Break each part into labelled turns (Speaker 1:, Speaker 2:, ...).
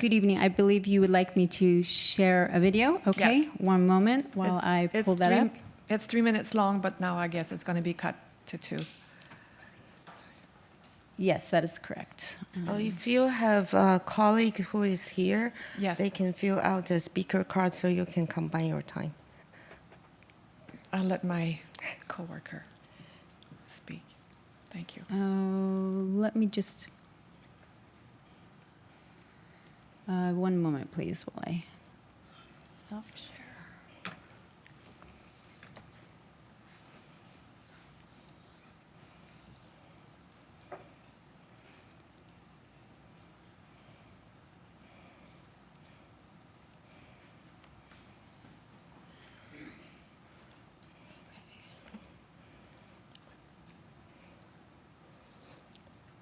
Speaker 1: Good evening. I believe you would like me to share a video. Okay,
Speaker 2: Yes.
Speaker 1: one moment while
Speaker 2: It's-
Speaker 1: I
Speaker 2: it's
Speaker 1: pull that
Speaker 2: three-
Speaker 1: up.
Speaker 2: It's three minutes long, but now I guess it's going to be cut to two.
Speaker 1: Yes, that is correct.
Speaker 3: Oh, if you have a colleague who is here,
Speaker 2: Yes.
Speaker 3: they can fill out the speaker card so you can combine your time.
Speaker 2: I'll let my coworker speak. Thank you.
Speaker 1: Uh, let me just. Uh, one moment, please, while I stop share.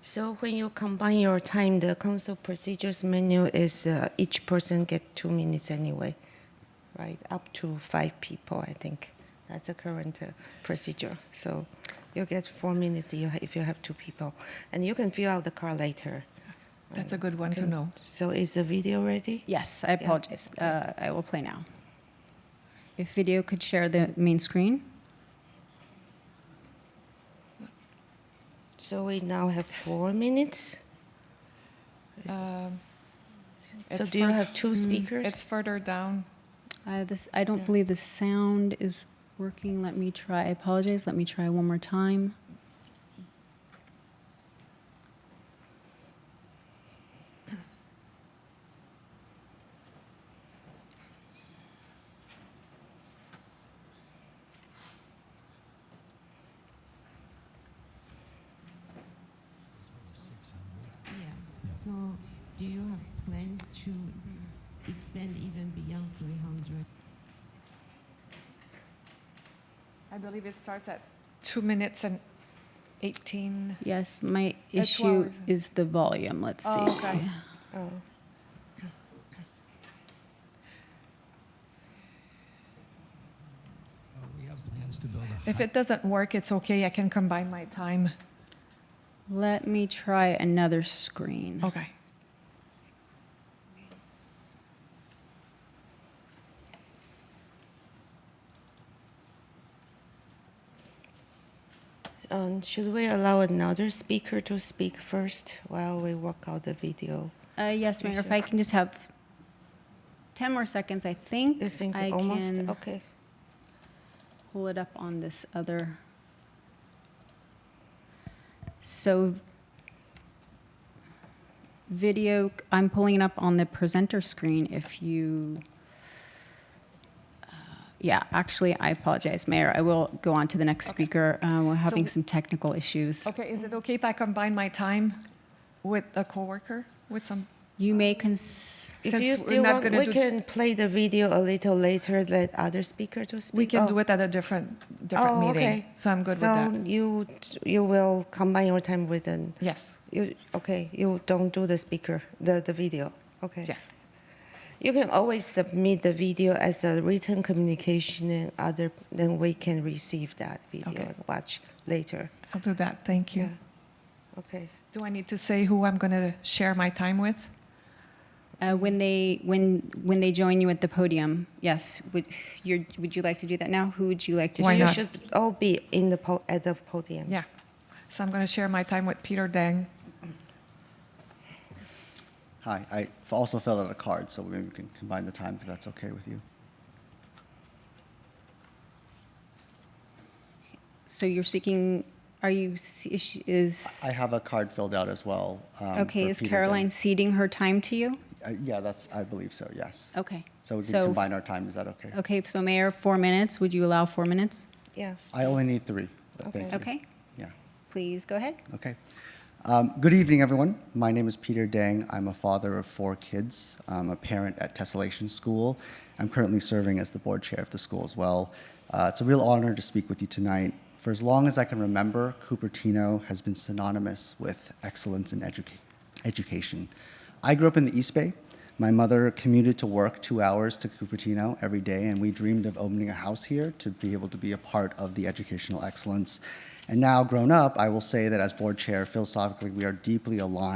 Speaker 3: So when you combine your time, the council procedures menu is uh, each person get two minutes anyway, right? Up to five people, I think. That's the current uh, procedure. So you get four minutes you ha- if you have two people, and you can fill out the card later.
Speaker 2: That's a good one to know.
Speaker 3: So is the video ready?
Speaker 1: Yes, I apologize. Uh, I will play now. If video could share the main screen.
Speaker 3: So we now have four minutes.
Speaker 2: Um,
Speaker 3: So
Speaker 2: it's
Speaker 3: do you
Speaker 2: fur-
Speaker 3: have two speakers?
Speaker 2: It's further down.
Speaker 1: Uh, this, I don't
Speaker 2: Yeah.
Speaker 1: believe the sound is working. Let me try. I apologize. Let me try one more time.
Speaker 4: Yeah. So do you have plans to expand even beyond 300?
Speaker 2: I believe it starts at two minutes and 18.
Speaker 1: Yes, my
Speaker 2: That's
Speaker 1: issue
Speaker 2: what I was-
Speaker 1: is the volume. Let's
Speaker 2: Oh,
Speaker 1: see.
Speaker 2: okay.
Speaker 3: Oh.
Speaker 5: Uh, We have plans to build a.
Speaker 2: If it doesn't work, it's okay. I can combine my time.
Speaker 1: Let me try another screen.
Speaker 2: Okay.
Speaker 3: Um, should we allow another speaker to speak first while we work out the video?
Speaker 2: Oh.
Speaker 1: Uh, yes, Mayor, if I can just have 10 more seconds, I think.
Speaker 3: You think
Speaker 1: I
Speaker 3: almost
Speaker 1: can
Speaker 3: okay?
Speaker 1: pull it up on this other. So video, I'm pulling it up on the presenter screen if you. uh, Yeah, actually, I apologize, Mayor. I will go on to the next speaker. Uh, we're having
Speaker 2: we- Oh.
Speaker 1: some technical issues.
Speaker 2: Okay. Is it okay if I combine my time with a coworker? With some.
Speaker 1: You may cons,
Speaker 3: If
Speaker 2: Since
Speaker 3: you
Speaker 2: we're
Speaker 3: still
Speaker 2: not
Speaker 3: want,
Speaker 2: gonna
Speaker 3: we
Speaker 2: do-
Speaker 3: can play the video a little later. Let other speaker to speak.
Speaker 2: We can
Speaker 3: Oh,
Speaker 2: do it at a different different
Speaker 3: oh,
Speaker 2: meeting.
Speaker 3: okay.
Speaker 2: So I'm good
Speaker 3: so
Speaker 2: with that.
Speaker 3: you you will combine your time with an
Speaker 2: Yes.
Speaker 3: you okay? You don't do the speaker the the video. Okay.
Speaker 2: Yes.
Speaker 3: You can always submit the video as a written communication, and other then we can receive that video
Speaker 2: Okay.
Speaker 3: and watch later.
Speaker 2: I'll do that. Thank you.
Speaker 3: Yeah. Okay.
Speaker 2: Do I need to say who I'm going to share my time with?
Speaker 1: Uh, when they when when they join you at the podium, yes. Would you would you like to do that now? Who would you like to?
Speaker 2: Why
Speaker 3: you
Speaker 2: not?
Speaker 3: should all be in the po- at the podium.
Speaker 2: Yeah. So I'm going to share my time with Peter Deng.
Speaker 6: Hi, I f- also filled out a card, so maybe we can combine the time if that's okay with you.
Speaker 1: So you're speaking. Are you s- is- is
Speaker 6: I have a card filled out as well. um,
Speaker 1: okay?
Speaker 6: for
Speaker 1: Is
Speaker 6: Peter Ding.
Speaker 1: Caroline ceding her time to you?
Speaker 6: Uh, Yeah, that's, I believe so, yes.
Speaker 1: Okay.
Speaker 6: So we
Speaker 1: So-
Speaker 6: can combine our time, is that okay?
Speaker 1: Okay. So Mayor, four minutes. Would you allow four minutes?
Speaker 3: Yeah.
Speaker 6: I only need three, but thank you.
Speaker 1: Okay.
Speaker 6: Yeah.
Speaker 1: Please go ahead.
Speaker 6: Okay. Um, good evening, everyone. My name is Peter Dang. I'm a father of four kids. I'm a parent at Tessellation School. I'm currently serving as the board chair of the school as well. Uh, it's a real honor to speak with you tonight. For as long as I can remember, Cupertino has been synonymous with excellence in educa- education. I grew up in the East Bay. My mother commuted to work two hours to Cupertino every day, and we dreamed of opening a house here to be able to be a part of the educational excellence. And now, grown up, I will say that as board chair, philosophically, we are deeply aligned.